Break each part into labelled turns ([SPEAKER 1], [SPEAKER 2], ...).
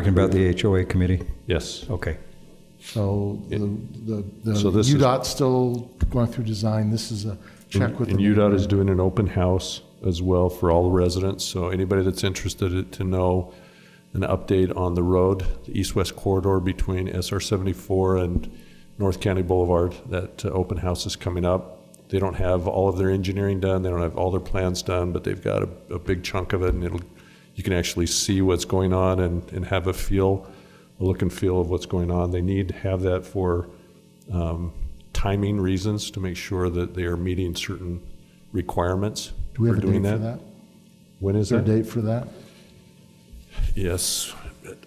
[SPEAKER 1] Talking about the HOA committee?
[SPEAKER 2] Yes.
[SPEAKER 1] Okay.
[SPEAKER 3] So the, the, the
[SPEAKER 2] So this is-
[SPEAKER 3] UDOT's still going through design, this is a check with.
[SPEAKER 2] And
[SPEAKER 3] the-
[SPEAKER 2] UDOT is doing an open house as well for all the residents, so anybody that's interested to know an update on the road, the east-west corridor between SR 74 and North County Boulevard, that uh, open house is coming up. They don't have all of their engineering done, they don't have all their plans done, but they've got a, a big chunk of it, and it'll, you can actually see what's going on and, and have a feel, a look and feel of what's going on. They need to have that for um, timing reasons to make sure that they are meeting certain requirements
[SPEAKER 3] Do we
[SPEAKER 2] for
[SPEAKER 3] have a
[SPEAKER 2] doing
[SPEAKER 3] date for
[SPEAKER 2] that.
[SPEAKER 3] that?
[SPEAKER 2] When is
[SPEAKER 3] Is there a
[SPEAKER 2] that?
[SPEAKER 3] date for that?
[SPEAKER 2] Yes.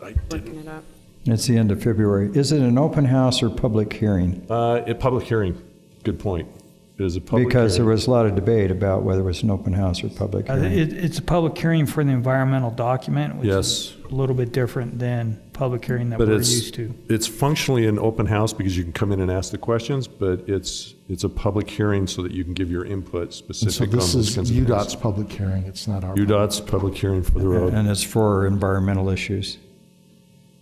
[SPEAKER 2] I didn't-
[SPEAKER 4] looking it up.
[SPEAKER 1] It's the end of February. Is it an open house or public hearing?
[SPEAKER 2] Uh, a public hearing, good point. It is a public
[SPEAKER 1] Because there
[SPEAKER 2] hearing.
[SPEAKER 1] was a lot of debate about whether it was an open house or public
[SPEAKER 5] Uh,
[SPEAKER 1] hearing.
[SPEAKER 5] It, it's a public hearing for the environmental document, which
[SPEAKER 2] Yes,
[SPEAKER 5] is a little bit different than public hearing that
[SPEAKER 2] but
[SPEAKER 5] we're
[SPEAKER 2] it's,
[SPEAKER 5] used to.
[SPEAKER 2] it's functionally an open house because you can come in and ask the questions, but it's, it's a public hearing so that you can give your input
[SPEAKER 3] And so
[SPEAKER 2] specific on
[SPEAKER 3] this
[SPEAKER 2] those
[SPEAKER 3] is
[SPEAKER 2] kinds of
[SPEAKER 3] UDOT's
[SPEAKER 2] things.
[SPEAKER 3] public hearing, it's not our.
[SPEAKER 2] UDOT's public hearing for the road.
[SPEAKER 1] And it's for environmental issues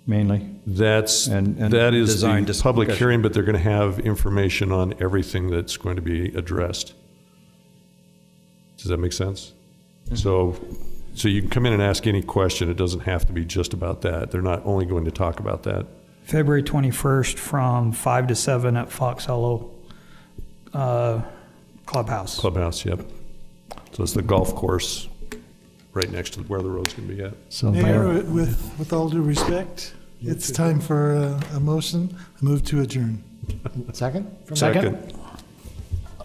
[SPEAKER 1] mainly.
[SPEAKER 2] That's,
[SPEAKER 1] And- and
[SPEAKER 2] that is
[SPEAKER 1] design
[SPEAKER 2] the
[SPEAKER 1] dis-
[SPEAKER 2] public
[SPEAKER 1] discussion.
[SPEAKER 2] hearing, but they're going to have information on everything that's going to be addressed. Does that make sense?
[SPEAKER 1] Mm-hmm.
[SPEAKER 2] So, so you can come in and ask any question. It doesn't have to be just about that. They're not only going to talk about that.
[SPEAKER 5] February 21st from 5 to 7 at Fox Hollow uh, Clubhouse.
[SPEAKER 2] Clubhouse, yep. So it's the golf course right next to where the road's going to be at.
[SPEAKER 3] So
[SPEAKER 6] Mayor,
[SPEAKER 3] Mayor,
[SPEAKER 6] with, with all due respect, it's time for uh, a motion. I move to adjourn.
[SPEAKER 3] second?
[SPEAKER 2] Second.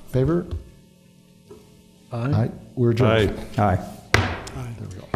[SPEAKER 3] Favor? Aye. We're adjourned.
[SPEAKER 2] Aye.
[SPEAKER 1] Aye.
[SPEAKER 6] Aye.
[SPEAKER 3] There we go.